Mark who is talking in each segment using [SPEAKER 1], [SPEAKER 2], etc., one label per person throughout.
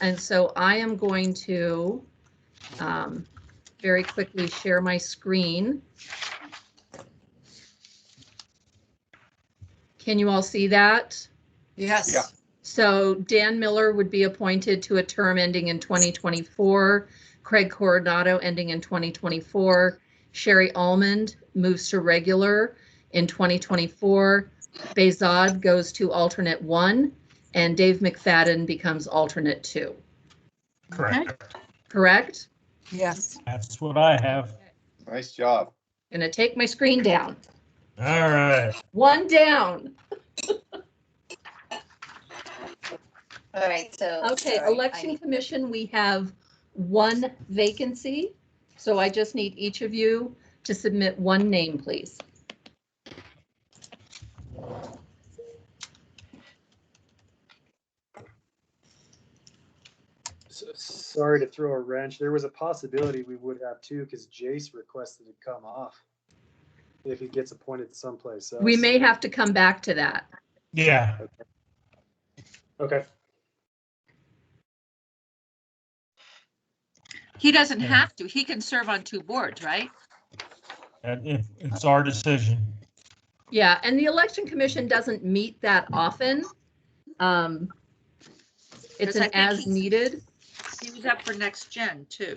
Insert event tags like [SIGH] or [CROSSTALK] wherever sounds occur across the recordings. [SPEAKER 1] And so I am going to um, very quickly share my screen. Can you all see that?
[SPEAKER 2] Yes.
[SPEAKER 3] Yeah.
[SPEAKER 1] So Dan Miller would be appointed to a term ending in 2024. Craig Coronado ending in 2024. Sherry Almond moves to regular in 2024. Bezod goes to alternate one, and Dave McFadden becomes alternate two.
[SPEAKER 4] Correct.
[SPEAKER 1] Correct?
[SPEAKER 2] Yes.
[SPEAKER 4] That's what I have.
[SPEAKER 3] Nice job.
[SPEAKER 1] Gonna take my screen down.
[SPEAKER 4] All right.
[SPEAKER 1] One down.
[SPEAKER 5] All right, so.
[SPEAKER 2] Oh,
[SPEAKER 1] Okay,
[SPEAKER 5] sorry, I
[SPEAKER 1] election
[SPEAKER 5] need-
[SPEAKER 1] commission, we have one vacancy. So I just need each of you to submit one name, please.
[SPEAKER 6] S- Sorry to throw a wrench. There was a possibility we would have two because Jace requested to come off if he gets appointed someplace else.
[SPEAKER 1] We may have to come back to that.
[SPEAKER 4] Yeah.
[SPEAKER 6] Okay.
[SPEAKER 2] He doesn't
[SPEAKER 4] Yeah.
[SPEAKER 2] have to. He can serve on two boards, right?
[SPEAKER 4] And it- it's our decision.
[SPEAKER 1] Yeah, and the election commission doesn't meet that often. Um, It's
[SPEAKER 2] Because I
[SPEAKER 1] an
[SPEAKER 2] think
[SPEAKER 1] as
[SPEAKER 2] he's-
[SPEAKER 1] needed.
[SPEAKER 2] He was up for next gen too.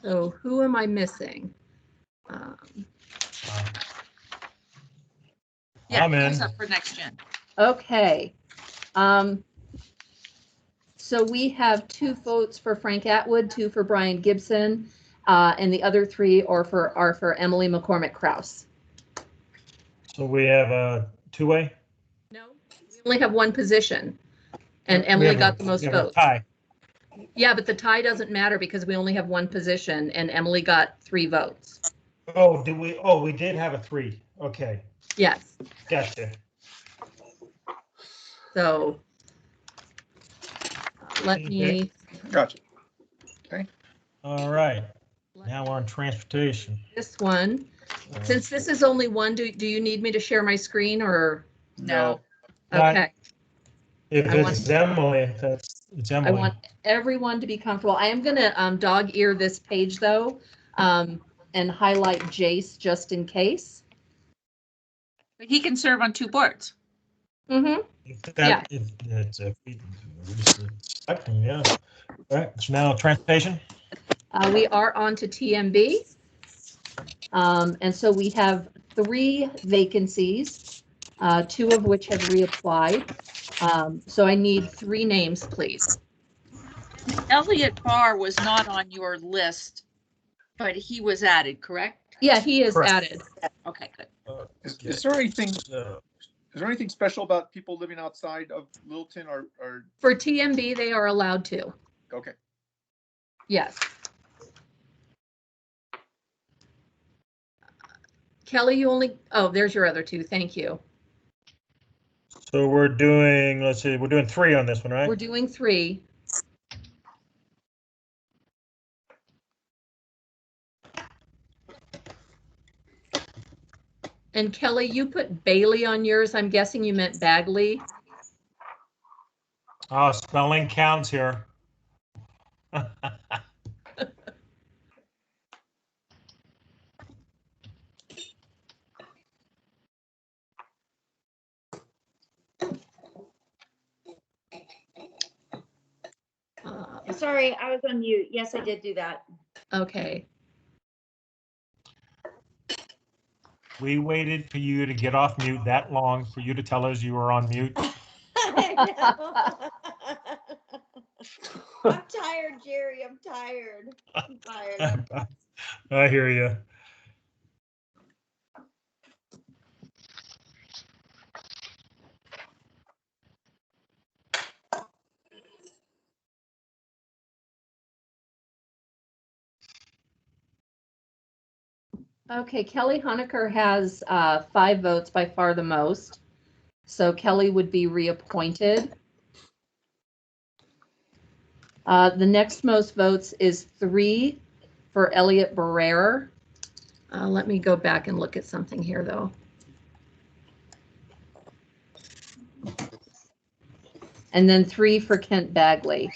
[SPEAKER 1] So who am I missing? Um, Uh,
[SPEAKER 2] Yeah,
[SPEAKER 4] I'm
[SPEAKER 2] he was
[SPEAKER 4] in.
[SPEAKER 2] Up for next gen.
[SPEAKER 1] Okay. Um, so we have two votes for Frank Atwood, two for Brian Gibson, uh, and the other three are for, are for Emily McCormick Kraus.
[SPEAKER 4] So we have a two-way?
[SPEAKER 1] No, we only have one position. And
[SPEAKER 4] We
[SPEAKER 1] Emily
[SPEAKER 4] have a-
[SPEAKER 1] got the most
[SPEAKER 4] we have a
[SPEAKER 1] votes.
[SPEAKER 4] Tie.
[SPEAKER 1] Yeah, but the tie doesn't matter because we only have one position and Emily got three votes.
[SPEAKER 4] Oh, did we, oh, we did have a three. Okay,
[SPEAKER 1] Yes,
[SPEAKER 4] gotcha.
[SPEAKER 1] so uh, let
[SPEAKER 4] Okay.
[SPEAKER 1] me,
[SPEAKER 3] Gotcha.
[SPEAKER 4] All right, now we're on transportation.
[SPEAKER 1] this one,
[SPEAKER 4] Uh,
[SPEAKER 1] since this is only one, do, do you need me to share my screen or?
[SPEAKER 2] No.
[SPEAKER 4] Right.
[SPEAKER 1] Okay.
[SPEAKER 4] If
[SPEAKER 1] I want-
[SPEAKER 4] it's Emily, that's, it's
[SPEAKER 1] I
[SPEAKER 4] Emily.
[SPEAKER 1] want everyone to be comfortable. I am gonna um, dog ear this page though, um, and highlight Jace just in case.
[SPEAKER 2] But He can serve on two boards.
[SPEAKER 1] Mm-hmm.
[SPEAKER 4] If that- if that's a- we- we're expecting, Yeah. All right, so now transportation?
[SPEAKER 1] Uh, we are on to TMB. Um, and so we have three vacancies, uh, two of which have reapplied. Um, so I need three names, please.
[SPEAKER 2] Elliot Barr was not on your list, but he was added, correct?
[SPEAKER 1] Yeah, he is
[SPEAKER 4] Correct.
[SPEAKER 1] added.
[SPEAKER 2] Okay, good.
[SPEAKER 3] Is, is there anything, is
[SPEAKER 4] So-
[SPEAKER 3] there anything special about people living outside of Littleton or, or,
[SPEAKER 1] For TMB, they are allowed to.
[SPEAKER 3] okay,
[SPEAKER 1] Yes. Kelly, you only, oh, there's your other two. Thank you.
[SPEAKER 4] So we're doing, let's see, we're doing three on this one,
[SPEAKER 1] We're
[SPEAKER 4] right?
[SPEAKER 1] doing three. And Kelly, you put Bailey on yours. I'm guessing you meant Bagley.
[SPEAKER 4] Oh, spelling counts here. [LAUGHS]
[SPEAKER 1] Uh,
[SPEAKER 5] Sorry, I was on mute. Yes, I did do that.
[SPEAKER 1] Okay,
[SPEAKER 4] We waited for you to get off mute that long for you to tell us you were on mute. [LAUGHS]
[SPEAKER 5] [LAUGHS] I know. [LAUGHS] I'm tired, Jerry. I'm tired. I'm tired.
[SPEAKER 4] I hear you.
[SPEAKER 1] okay, Kelly Honaker has uh, five votes by far the most. So Kelly would be reappointed. Uh, The next most votes is three for Elliot Barrera. Uh, Let me go back and look at something here, though. And then three for Kent Bagley.